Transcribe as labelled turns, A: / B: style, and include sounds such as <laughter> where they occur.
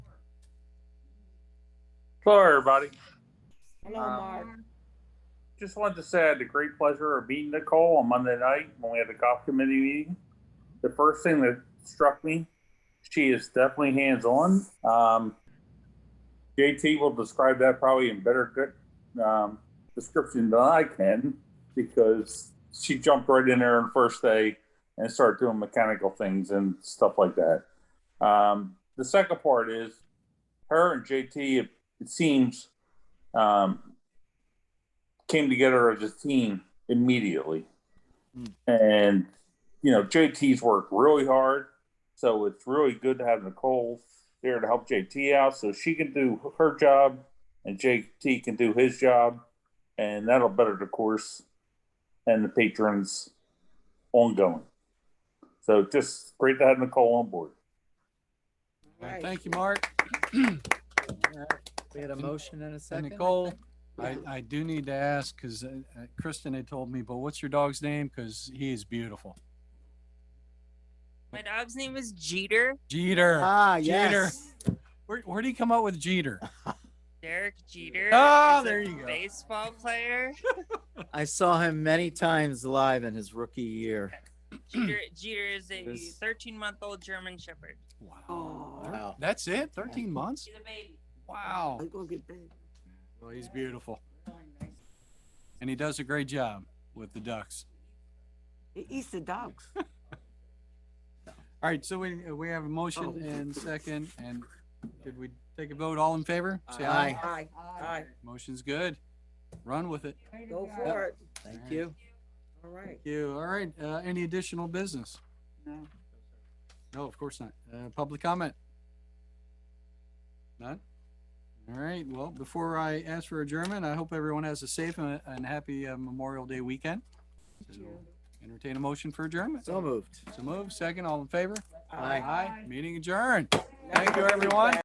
A: Hello, everybody.
B: Hello,
A: Um,
B: Mark.
A: Just wanted to say I had the great pleasure of meeting Nicole on Monday night when we had the golf committee meeting. The first thing that struck me, she is definitely hands-on. Um, JT will describe that probably in better good, um, description than I can because she jumped right in there on the first day and started doing mechanical things and stuff like that. Um, the second part is her and JT, it, it seems, um, came together as a team immediately.
C: Mm.
A: And, you know, JT's worked really hard. So it's really good to have Nicole there to help JT out so she can do her job and JT can do his job. And that'll better the course and the patrons ongoing. So just great to have Nicole on board.
C: Well,
B: Right.
C: Thank you, Mark.
D: We had a
C: And-
D: motion and a
C: And
D: second. I
C: Nicole,
D: think?
C: I, I do need to ask, because Kristen had told me, but what's your dog's name? Because he is beautiful.
E: My dog's name is Jeter,
C: Jeter.
D: Ah,
C: Jeter.
D: yes.
C: Where, where'd he come up
D: <laughs>
C: with Jeter?
E: Derek Jeter.
C: Ah,
E: is a
C: there you go.
E: Baseball
C: <clears throat>
E: player.
D: I saw him many times live in his rookie year.
E: Jeter, Jeter is a
D: This-
E: 13 month old German Shepherd.
C: Wow.
D: Wow.
C: That's it? 13 months?
E: She's a baby.
C: Wow.
B: I'm gonna get bed.
C: Well, he's beautiful. And he does a great job with the Ducks.
B: He eats the dogs.
C: All right, so we, we have a motion
B: Oh.
C: and second, and did we take a vote? All in favor? Say
D: Aye.
B: Aye, aye.
C: Motion's good. Run with it.
B: Go for it.
D: Thank you.
B: All right.
C: Thank You, all right, uh, any additional business?
B: No.
C: No, of course not. Uh, public comment? None? All right, well, before I ask for adjournment, I hope everyone has a safe and, and happy uh, Memorial Day weekend. So, Entertain a motion for adjournment.
D: So moved.
C: So move, second, all in favor?
D: Aye.
C: Aye, meeting adjourned. Thank you, everyone.